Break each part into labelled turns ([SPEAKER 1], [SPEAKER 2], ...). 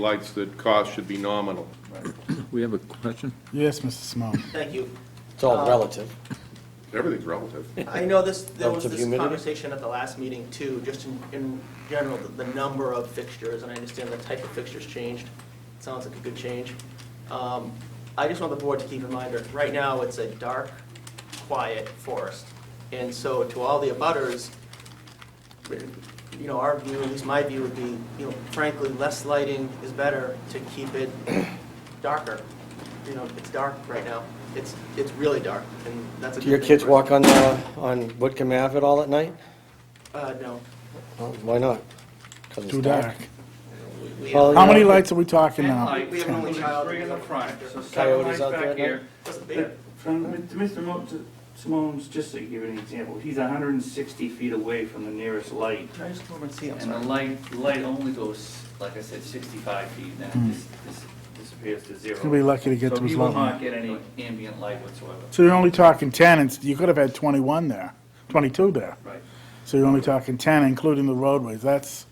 [SPEAKER 1] lights that cost should be nominal.
[SPEAKER 2] We have a question?
[SPEAKER 3] Yes, Mr. Simone.
[SPEAKER 4] Thank you.
[SPEAKER 5] It's all relative.
[SPEAKER 1] Everything's relative.
[SPEAKER 4] I know this, there was
[SPEAKER 5] Relative
[SPEAKER 4] this
[SPEAKER 5] humidity?
[SPEAKER 4] conversation at the last meeting too, just in, in general, the- the number of fixtures, and I understand the type of fixtures changed. It Sounds like a good change. Um, I just want the board to keep in mind that right now it's a dark, quiet forest. And so to all the abutters, you know, our view, at least my view would be, you know, frankly, less lighting is better to keep it darker. You know, it's dark right now. It's, it's really dark, and that's a good
[SPEAKER 5] Do your
[SPEAKER 4] thing
[SPEAKER 5] kids
[SPEAKER 4] for us.
[SPEAKER 5] walk on, uh, on Whitcomb Ave at all at night?
[SPEAKER 4] Uh, no.
[SPEAKER 5] Well, Why not? 'Cause it's
[SPEAKER 3] Too dark.
[SPEAKER 4] We- we
[SPEAKER 5] Well,
[SPEAKER 4] have-
[SPEAKER 3] How
[SPEAKER 5] yeah.
[SPEAKER 3] many lights are we talking
[SPEAKER 5] uh,
[SPEAKER 3] now?
[SPEAKER 4] We have an only child.
[SPEAKER 6] Three in the front, so seven
[SPEAKER 5] Coyotes
[SPEAKER 6] lights
[SPEAKER 5] out there
[SPEAKER 6] back
[SPEAKER 5] at night?
[SPEAKER 6] here.
[SPEAKER 4] Doesn't
[SPEAKER 6] But
[SPEAKER 4] matter.
[SPEAKER 6] From to Mr. Mo- to Simone's, just to give you an example, he's hundred and sixty feet away from the nearest light.
[SPEAKER 4] Can I just come over and see? I'm
[SPEAKER 6] And the
[SPEAKER 4] sorry.
[SPEAKER 6] light, light only goes, like I said, sixty-five feet, and then this, this disappears to zero.
[SPEAKER 3] He'll be lucky to get
[SPEAKER 6] So
[SPEAKER 3] to his
[SPEAKER 6] he will
[SPEAKER 3] level.
[SPEAKER 6] not get any ambient light whatsoever,
[SPEAKER 3] So you're only talking 10, and you could have had 21 there, 22 there.
[SPEAKER 6] right?
[SPEAKER 3] So you're only talking 10, including the roadways. That's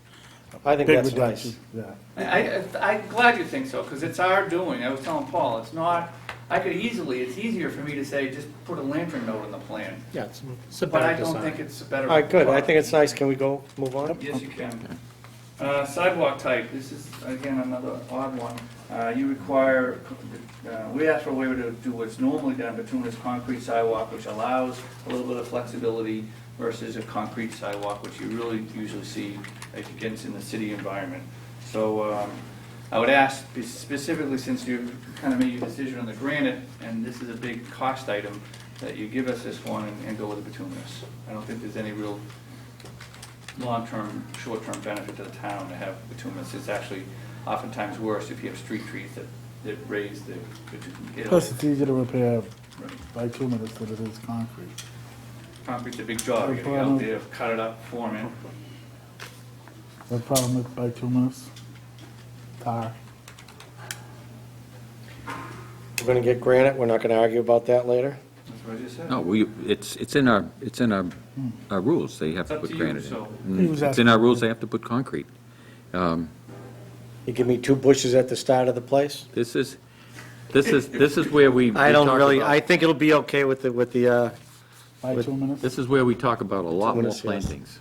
[SPEAKER 5] I think
[SPEAKER 3] big
[SPEAKER 5] that's nice.
[SPEAKER 3] reduction. Yeah.
[SPEAKER 6] I, I, I'm glad you think so, because it's our doing, I was telling Paul, it's not, I could easily, it's easier for me to say, just put a lantern note in the plan.
[SPEAKER 7] Yeah, it's, it's a
[SPEAKER 6] But I
[SPEAKER 7] better
[SPEAKER 6] don't think
[SPEAKER 7] design.
[SPEAKER 6] it's a better.
[SPEAKER 5] All right, good. I think it's nice. Can we go, move on?
[SPEAKER 6] Yes, you can. Uh, Sidewalk type, this is, again, another odd one. Uh, You require, uh, we asked for a waiver to do what's normally done, bituminous concrete sidewalk, which allows a little bit of flexibility versus a concrete sidewalk, which you really usually see against in the city environment. So um, I would ask spe- specifically, since you've kind of made your decision on the granite, and this is a big cost item, that you give us this one and- and go with the bituminous. I don't think there's any real long-term, short-term benefit to the town to have bituminous. It's actually oftentimes worse if you have street trees that, that raise the
[SPEAKER 3] Plus,
[SPEAKER 6] bituminous.
[SPEAKER 3] it's easier to repair by two minutes than it is concrete.
[SPEAKER 6] Concrete's a big job, you gotta get out there, cut it up, form it.
[SPEAKER 2] Oh.
[SPEAKER 3] The problem with by two minutes? Tar.
[SPEAKER 5] We're gonna get granite. We're not gonna argue about that later.
[SPEAKER 6] That's what I just said.
[SPEAKER 2] No, we, it's, it's in our, it's in our, our rules, they have
[SPEAKER 6] It's
[SPEAKER 2] to
[SPEAKER 6] up
[SPEAKER 2] put
[SPEAKER 6] to you,
[SPEAKER 2] granite in.
[SPEAKER 6] so.
[SPEAKER 3] He
[SPEAKER 2] Mm,
[SPEAKER 3] was
[SPEAKER 2] It's in our
[SPEAKER 3] asking-
[SPEAKER 2] rules, they have to put concrete. Um,
[SPEAKER 5] You give me two bushes at the start of the place?
[SPEAKER 2] This is, this is, this is where we.
[SPEAKER 5] I
[SPEAKER 2] we
[SPEAKER 5] don't
[SPEAKER 2] talk
[SPEAKER 5] really,
[SPEAKER 2] about-
[SPEAKER 5] I think it'll be okay with the, with the, uh,
[SPEAKER 3] By
[SPEAKER 5] With-
[SPEAKER 3] two minutes?
[SPEAKER 2] This is where we talk about a lot
[SPEAKER 5] Someone
[SPEAKER 2] more
[SPEAKER 5] else, yes.
[SPEAKER 2] plantings.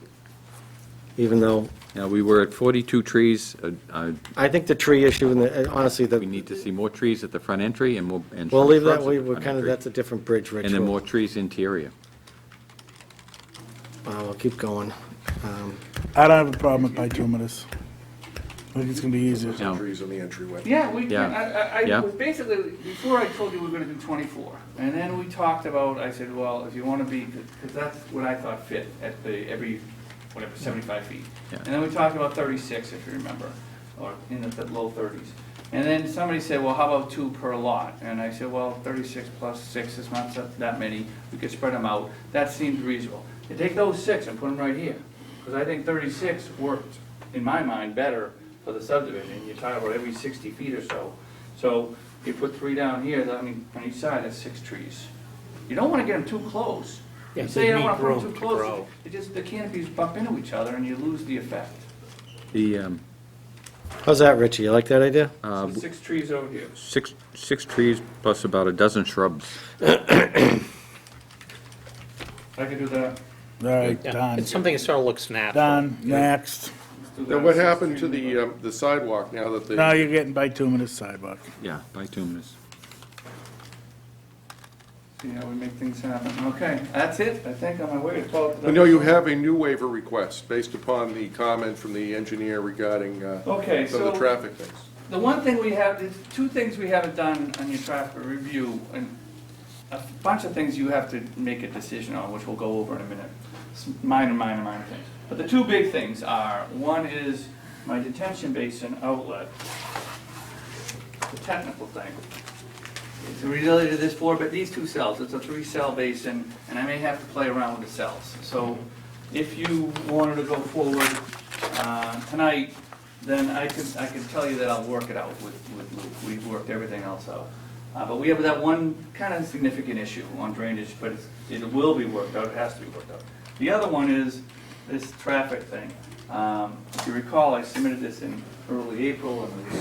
[SPEAKER 5] even though,
[SPEAKER 2] You know, we were at 42 trees, uh, uh,
[SPEAKER 5] I think the tree issue and the, uh, honestly,
[SPEAKER 2] we
[SPEAKER 5] the,
[SPEAKER 2] need to see more trees at the front entry and more, and.
[SPEAKER 5] we'll leave that,
[SPEAKER 2] shrubs at
[SPEAKER 5] we,
[SPEAKER 2] the
[SPEAKER 5] we're
[SPEAKER 2] front
[SPEAKER 5] kind of,
[SPEAKER 2] entry.
[SPEAKER 5] that's a different bridge, Rich.
[SPEAKER 2] And then
[SPEAKER 5] We'll-
[SPEAKER 2] more trees interior.
[SPEAKER 5] Uh, we'll keep going. Um,
[SPEAKER 3] I don't have a problem with by two minutes. I think it's gonna be easier.
[SPEAKER 2] Now,
[SPEAKER 1] Trees in the entryway.
[SPEAKER 6] Yeah, we,
[SPEAKER 2] Yeah.
[SPEAKER 6] I, I,
[SPEAKER 2] Yeah.
[SPEAKER 6] I was basically, before I told you we were gonna do twenty-four, and then we talked about, I said, well, if you wanna be, because that's what I thought fit at the, every, whatever, seventy-five feet.
[SPEAKER 2] Yeah.
[SPEAKER 6] And then we talked about thirty-six, if you remember, or in the th- low thirties. And then somebody said, well, how about two per lot? And I said, well, thirty-six plus six is not that- that many, we could spread them out, that seemed reasonable. And Take those six and put them right here, because I think thirty-six worked, in my mind, better for the subdivision. You're talking about every sixty feet or so. So you put three down here, that- I mean, on each side, that's six trees. You don't want to get them too close.
[SPEAKER 7] Yeah,
[SPEAKER 6] You say you don't
[SPEAKER 7] they
[SPEAKER 6] want to
[SPEAKER 7] need
[SPEAKER 6] put them
[SPEAKER 7] room
[SPEAKER 6] too
[SPEAKER 7] to
[SPEAKER 6] close,
[SPEAKER 7] grow.
[SPEAKER 6] it just, the canopies bump into each other and you lose the effect.
[SPEAKER 2] the, um,
[SPEAKER 5] How's that, Richie? You like that idea?
[SPEAKER 2] uh,
[SPEAKER 6] So six trees over here.
[SPEAKER 2] six, six trees plus about a dozen shrubs.
[SPEAKER 6] I could do that.
[SPEAKER 3] All right,
[SPEAKER 7] Yeah,
[SPEAKER 3] done.
[SPEAKER 7] it's something that sort of looks natural.
[SPEAKER 3] Done, next.
[SPEAKER 6] Let's do
[SPEAKER 1] Now,
[SPEAKER 6] that.
[SPEAKER 1] what
[SPEAKER 6] Six
[SPEAKER 1] happened to
[SPEAKER 6] trees over
[SPEAKER 1] the, um, the sidewalk now that
[SPEAKER 3] Now
[SPEAKER 1] the,
[SPEAKER 3] you're getting by two minutes sidewalk.
[SPEAKER 2] Yeah, bituminous.
[SPEAKER 6] See how we make things happen. Okay, that's it, I think, on my way to twelve.
[SPEAKER 1] I know you have a new waiver request based upon the comment from the engineer regarding uh,
[SPEAKER 6] Okay,
[SPEAKER 1] some of the
[SPEAKER 6] so-
[SPEAKER 1] traffic things.
[SPEAKER 6] The one thing we have, there's two things we haven't done on your traffic review, and a bunch of things you have to make a decision on, which we'll go over in a minute. It's Minor, minor, minor things. But the two big things are, one is my detention basin outlet, the technical thing. It's related to this board, but these two cells, it's a three-cell basin, and I may have to play around with the cells. So if you wanted to go forward uh, tonight, then I could, I could tell you that I'll work it out with, with Luke. We've worked everything else out. Uh, But we have that one kind of significant issue on drainage, but it's- it will be worked out, it has to be worked out. The other one is this traffic thing. Um, If you recall, I submitted this in early April, and it was